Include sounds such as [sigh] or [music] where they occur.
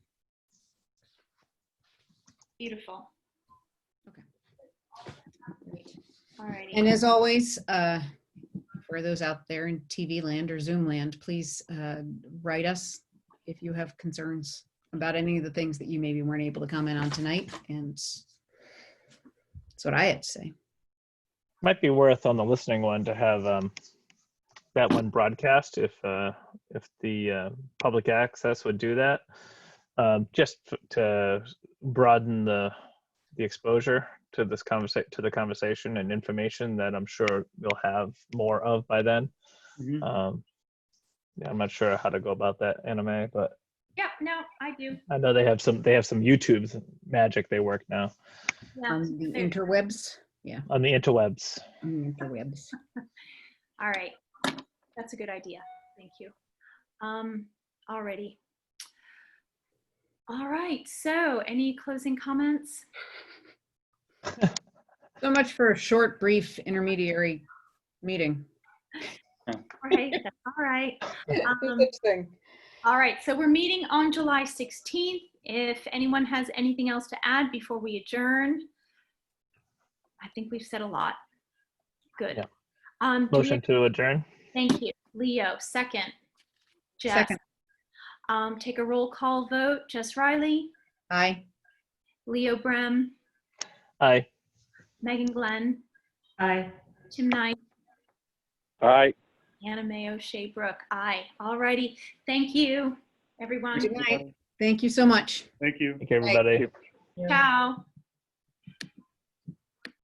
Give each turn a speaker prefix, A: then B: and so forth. A: Beautiful.
B: Okay.
A: All righty.
B: And as always, uh, for those out there in TV land or Zoom land, please uh, write us if you have concerns about any of the things that you maybe weren't able to comment on tonight. And that's what I had to say.
C: Might be worth on the listening one to have um, that one broadcast if uh, if the uh, public access would do that, um, just f- to broaden the the exposure to this conversation to the conversation and information that I'm sure you'll have more of by then.
B: Mhm.
C: Um, yeah, I'm not sure how to go about that anime, but
A: Yeah, no, I do.
C: I know they have some they have some YouTube's magic they work now
A: Yeah.
B: On the
A: there-
B: interwebs,
C: on the interwebs.
B: on the interwebs.
A: All right. That's a good idea. Thank you. Um, already. All right. So any closing comments?
B: So much for a short, brief, intermediary meeting.
A: All right. that's [laughs] All right. Um,
B: Interesting.
A: All right, so we're meeting on July 16th. If anyone has anything else to add before we adjourn, I think we've said a lot. Good.
C: Yeah.
A: Um, do we-
C: Motion to adjourn.
A: Thank you. Leo, second. Jess,
B: Second.
A: um, take a roll call vote. Jess Riley,
B: Aye.
A: Leo Brem,
C: Aye.
A: Megan Glenn,
B: Aye.
A: Tim Knight,
D: Aye.
A: Anna Mae O'Shea Brooke. Aye. All righty. Thank you, everyone.
B: Good night. Thank you so much.
D: Thank you.
C: Thank you, everybody.
A: Ciao.